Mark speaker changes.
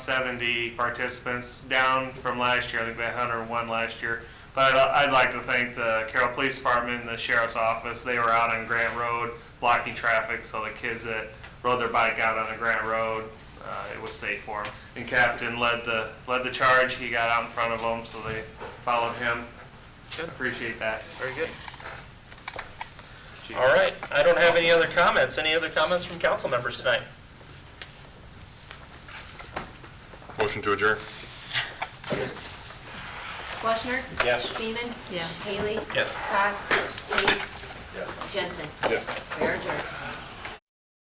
Speaker 1: 70 participants, down from last year. I think they had 101 last year. But I'd I'd like to thank the Carroll Police Department and the Sheriff's Office. They were out on Grant Road blocking traffic, so the kids that rode their bike out on the Grant Road, uh, it was safe for them. And Captain led the, led the charge. He got out in front of them, so they followed him.
Speaker 2: Good.
Speaker 1: Appreciate that.
Speaker 2: Very good. All right, I don't have any other comments. Any other comments from council members tonight?
Speaker 3: Motion to adjourn.
Speaker 4: Washner?
Speaker 2: Yes.
Speaker 4: Seaman? Yes. Haley?
Speaker 2: Yes.
Speaker 4: Cox? Yes. Jensen?
Speaker 3: Yes.
Speaker 4: We are adjourned.